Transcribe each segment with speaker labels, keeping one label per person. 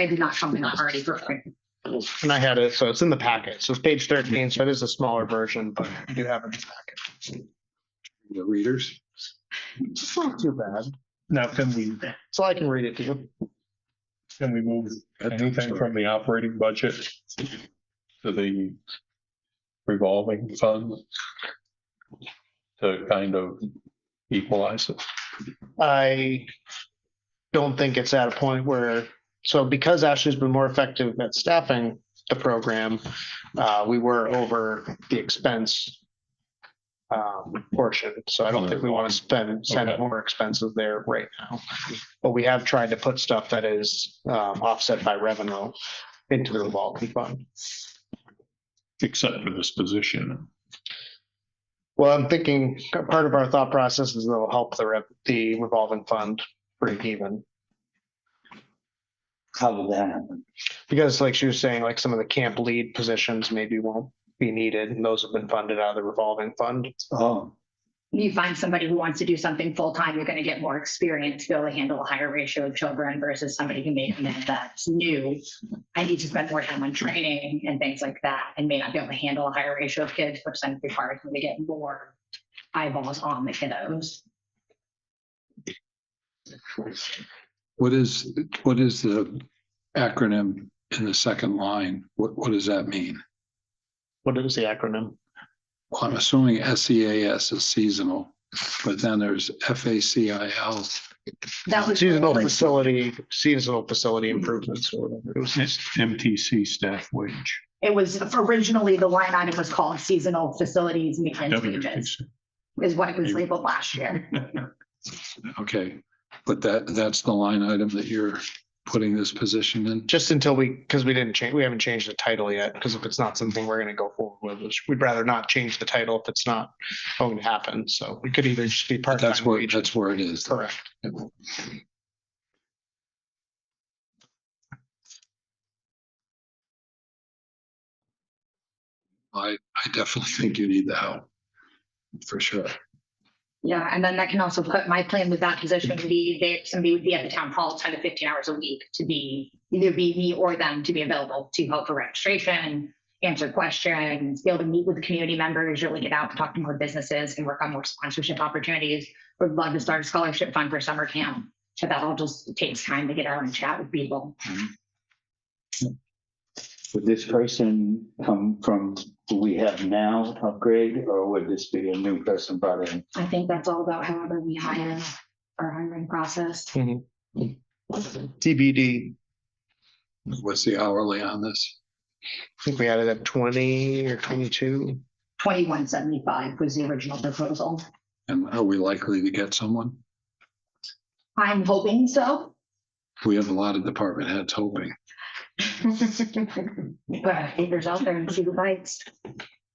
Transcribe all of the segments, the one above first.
Speaker 1: maybe not something I've already prepared.
Speaker 2: And I had it, so it's in the packet. So it's page thirteen, so it is a smaller version, but you do have it in the packet.
Speaker 3: The readers.
Speaker 2: It's not too bad.
Speaker 4: Now, can we,
Speaker 2: So I can read it to you.
Speaker 4: can we move anything from the operating budget to the revolving fund? To kind of equalize it.
Speaker 2: I don't think it's at a point where, so because Ashley's been more effective at staffing the program, uh, we were over the expense um, portion. So I don't think we want to spend, send
Speaker 4: Okay.
Speaker 2: more expenses there right now. But we have tried to put stuff that is um, offset by revenue into the revolving fund.
Speaker 4: Except for this position.
Speaker 2: Well, I'm thinking part of our thought process is that'll help the rev- the revolving fund break even.
Speaker 5: How did that happen?
Speaker 2: Because like she was saying, like some of the camp lead positions maybe won't be needed and those have been funded out of the revolving fund.
Speaker 5: Oh,
Speaker 1: You find somebody who wants to do something full-time, you're gonna get more experience to be able to handle a higher ratio of children versus somebody who may come in that's new. I need to spend more time on training and things like that and may not be able to handle a higher ratio of kids, which then requires me to get more eyeballs on the kiddos.
Speaker 3: What is, what is the acronym in the second line? What, what does that mean?
Speaker 2: What is the acronym?
Speaker 3: Well, I'm assuming SEAS is seasonal, but then there's FACIL.
Speaker 1: That was.
Speaker 2: Seasonal facility, seasonal facility improvements. or whatever. It was-
Speaker 4: MTC staff wage.
Speaker 1: It was originally, the line item was called seasonal facilities maintenance wages,
Speaker 4: WTC.
Speaker 1: is what it was labeled last year.
Speaker 3: Okay, but that, that's the line item that you're putting this position in?
Speaker 2: Just until we, because we didn't change, we haven't changed the title yet, because if it's not something we're gonna go forward with, which we'd rather not change the title if it's not going to happen. So we could either just be part.
Speaker 3: That's where, that's where it is.
Speaker 2: Correct.
Speaker 3: I, I definitely think you need the help. For sure.
Speaker 1: Yeah, and then that can also put, my plan with that position would be that somebody would be at the town hall ten to fifteen hours a week to be, either be me or them to be available to help for registration, answer questions, be able to meet with community members, really get out and talk to more businesses and work on more sponsorship opportunities. Would love to start a scholarship fund for summer camp, but that all just takes time to get out and chat with people.
Speaker 5: would this person come from who we have now upgrade, or would this be a new person brought in?
Speaker 1: I think that's all about however we hire our hiring process.
Speaker 2: TBD,
Speaker 3: What's the hourly on this?
Speaker 2: I think we added at twenty or twenty-two.
Speaker 1: Twenty-one seventy-five was the original proposal.
Speaker 3: And are we likely to get someone?
Speaker 1: I'm hoping so.
Speaker 3: We have a lot of department heads hoping.
Speaker 1: Put our fingers out there and see who bites.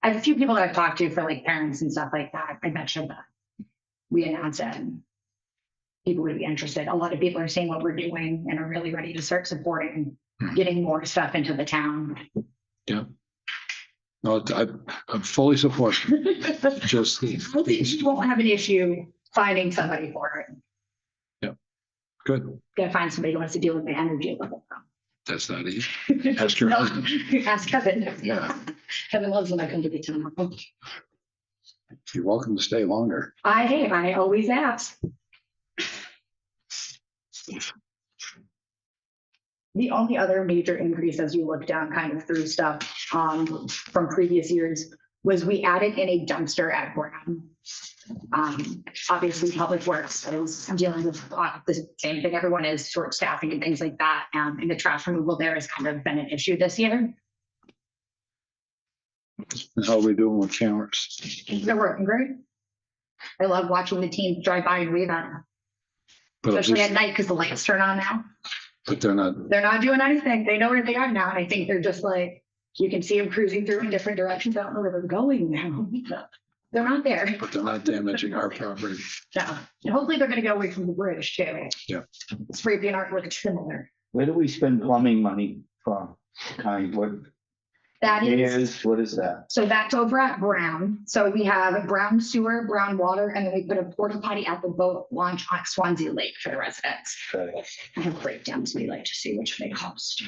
Speaker 1: I have a few people that I've talked to for like parents and stuff like that. I mentioned that. We announced it. and People would be interested. A lot of people are seeing what we're doing and are really ready to start supporting,
Speaker 3: Hmm.
Speaker 1: getting more stuff into the town.
Speaker 3: No, I, I'm fully supportive,
Speaker 1: I
Speaker 3: just.
Speaker 1: think you won't have an issue finding somebody for it.
Speaker 3: Good,
Speaker 1: Gotta find somebody who wants to deal with the energy level.
Speaker 3: that's not easy. Ask your
Speaker 1: No,
Speaker 3: husband.
Speaker 1: Ask Kevin.
Speaker 3: Yeah.
Speaker 1: Kevin loves when I come to the town.
Speaker 3: You're welcome to stay longer.
Speaker 1: I, hey, I always ask. The only other major increase as you look down kind of through stuff um from previous years was we added in a dumpster at Brown. Um, obviously, Public Works is dealing with a lot of the same thing everyone is, short staffing and things like that. Um, and the trash removal there has kind of been an issue this year.
Speaker 3: And How are we doing with cameras?
Speaker 1: They're working great. I love watching the team drive by and wave at them,
Speaker 3: But I'm
Speaker 1: especially at
Speaker 3: just-
Speaker 1: night because the lights turn on now.
Speaker 3: but they're not,
Speaker 1: They're not doing anything. They know where they are now. And I think they're just like, you can see them cruising through in different directions. I don't know where they're going now. They're not there.
Speaker 3: but they're not damaging our property.
Speaker 1: No. And hopefully they're gonna go away from the bridge too.
Speaker 3: Yeah.
Speaker 1: It's pretty being artwork similar.
Speaker 5: Where do we spend plumbing money from? Kind, what,
Speaker 1: That is,
Speaker 5: Is, what is that?
Speaker 1: so that's over at Brown. So we have Brown sewer, Brown water, and then we put a porta potty at the boat launch on Swansea Lake for the residents.
Speaker 5: Right.
Speaker 1: I have breakdowns. We like to see which they cost.